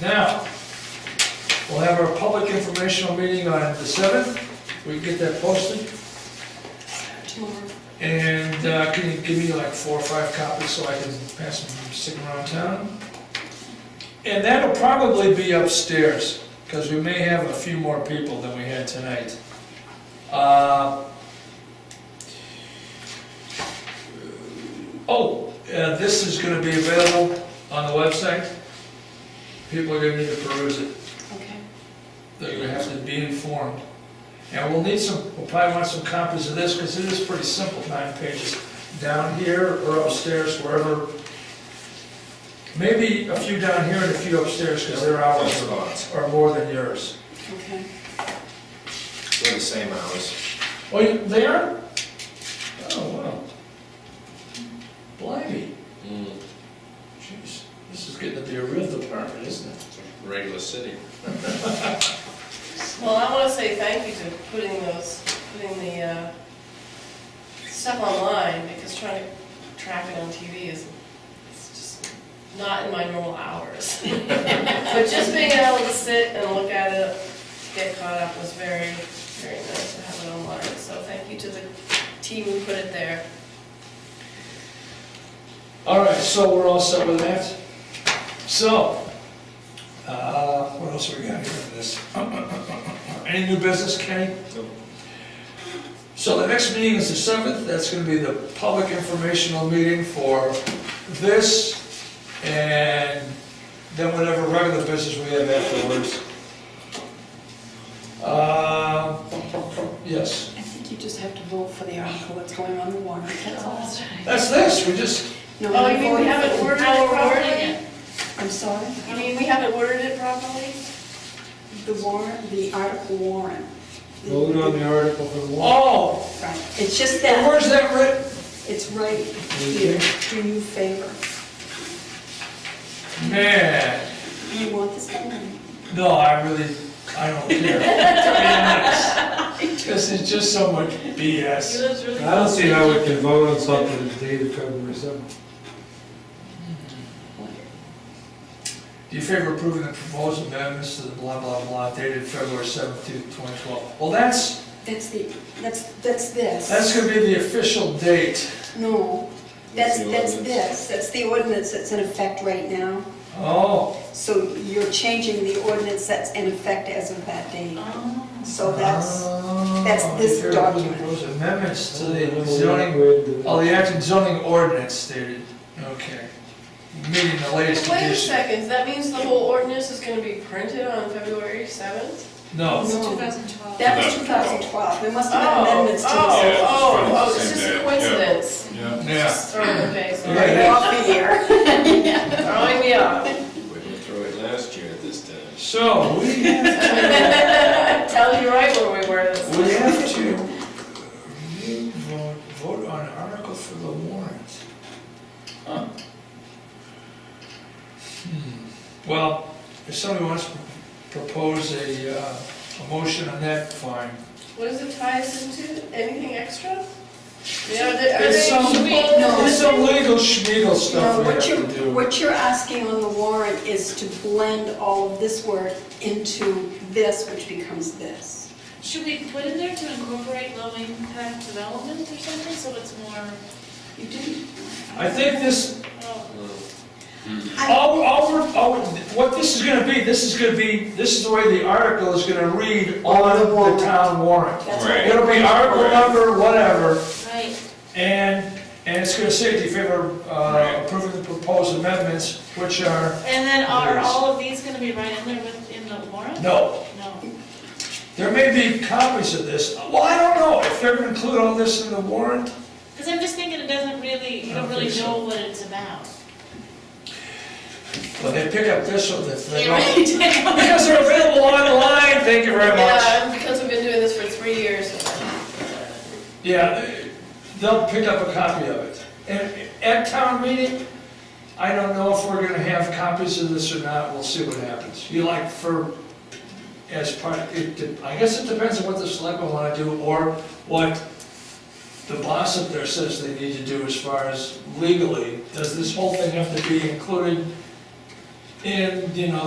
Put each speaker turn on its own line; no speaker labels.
Now, we'll have our public informational meeting on the seventh, we can get that posted. And uh, can you give me like four or five copies so I can pass them, stick them around town? And that'll probably be upstairs, because we may have a few more people than we had tonight. Uh, Oh, uh, this is gonna be available on the website. People are gonna need to peruse it.
Okay.
They're gonna have to be informed. And we'll need some, we'll probably want some copies of this, because it is pretty simple, nine pages. Down here or upstairs, wherever. Maybe a few down here and a few upstairs, because their hours
Those lots.
are more than yours.
Okay.
They're the same hours.
Oh, you- they are? Oh, wow. Blimey, jeez, this is getting to be a real department, isn't it?
Regular city.
Well, I want to say thank you to putting those, putting the uh, stuff online, because trying to track it on TV is, it's just not in my normal hours. But just being able to sit and look at it, get caught up was very, very nice to have it online. So thank you to the team who put it there.
All right, so we're all set with that? So, uh, what else we got here for this? Any new business, Kenny?
Nope.
So the next meeting is the seventh, that's gonna be the public informational meeting for this, and then whatever regular business we have afterwards. Uh, yes,
I think you just have to vote for the article that's going on the warrant, that's all.
that's this, we just,
No,
Oh, you
we
mean we
voted-
haven't worded it properly?
I'm sorry?
You mean we haven't worded it properly?
The warrant, the article warrant.
Vote on the article for the warrant.
oh,
Right, it's just that,
where's that written?
it's right here, do you favor?
Man,
You want this done?
no, I really, I don't care. To be honest. This is just so much BS.
That's really
I don't see how we can vote on something that's dated February seventh.
Do you favor approving the proposed amendments to the blah, blah, blah dated February seventeenth, twenty twelve? Well, that's,
That's the, that's, that's this.
that's gonna be the official date.
No,
That's
that's,
the
that's
ordinance.
this, that's the ordinance that's in effect right now.
Oh,
So you're changing the ordinance that's in effect as of that date.
Oh.
So that's, that's
Oh,
this
you favor approving the
document.
proposed Amendments to the zoning, oh, the
zoning.
act and zoning ordinance dated, okay. Meaning the latest
Wait a
edition.
second, that means the whole ordinance is gonna be printed on February seventh?
No,
No.
2012.
That was 2012, there must have been
Oh,
amendments to this.
oh, oh, oh, it's
Same
just
day,
a
yeah.
coincidence.
Yeah.
yeah,
Just throwing the face,
Yeah, yeah.
alright,
Off the year.
throwing me off.
We went through it last year at this time.
so we
Tell you right where we were this.
We have to vote, vote on article for the warrant. Hmm. Well, if somebody wants to propose a, uh, a motion on that, fine.
What does it tie us into? Anything extra? Yeah, are they- are
It's
they-
some-
should we-
no.
It's some legal schmiegel
No,
stuff we have
what
to
you're,
do.
what you're asking on the warrant is to blend all of this work into this, which becomes this.
Should we put in there to incorporate low impact development or something, so it's more,
You didn't,
I think this,
oh,
Hmm.
all, all, we're- all, what this is gonna be, this is gonna be, this is the way the article is gonna read
the
on
warrant.
the town warrant.
that's
Right.
what,
It'll be article number, whatever,
right,
And, and it's gonna say, do you favor uh, approving the proposed amendments, which are,
and then are all of these gonna be right in there with, in the warrant?
no.
No.
There may be copies of this, well, I don't know, if they're gonna include all this in the warrant,
Because I'm just thinking it doesn't really, you
I don't
don't really
think so.
know what it's about.
but they pick up this one, if they
It
don't.
really did.
Because they're available online, thank you very much.
Yeah, because we've been doing this for three years.
Yeah, they- they'll pick up a copy of it. And at town meeting, I don't know if we're gonna have copies of this or not, we'll see what happens. You like for, as part, it, de- I guess it depends on what the selectmen wanna do, or what the boss up there says they need to do as far as legally. Does this whole thing have to be included in, you know,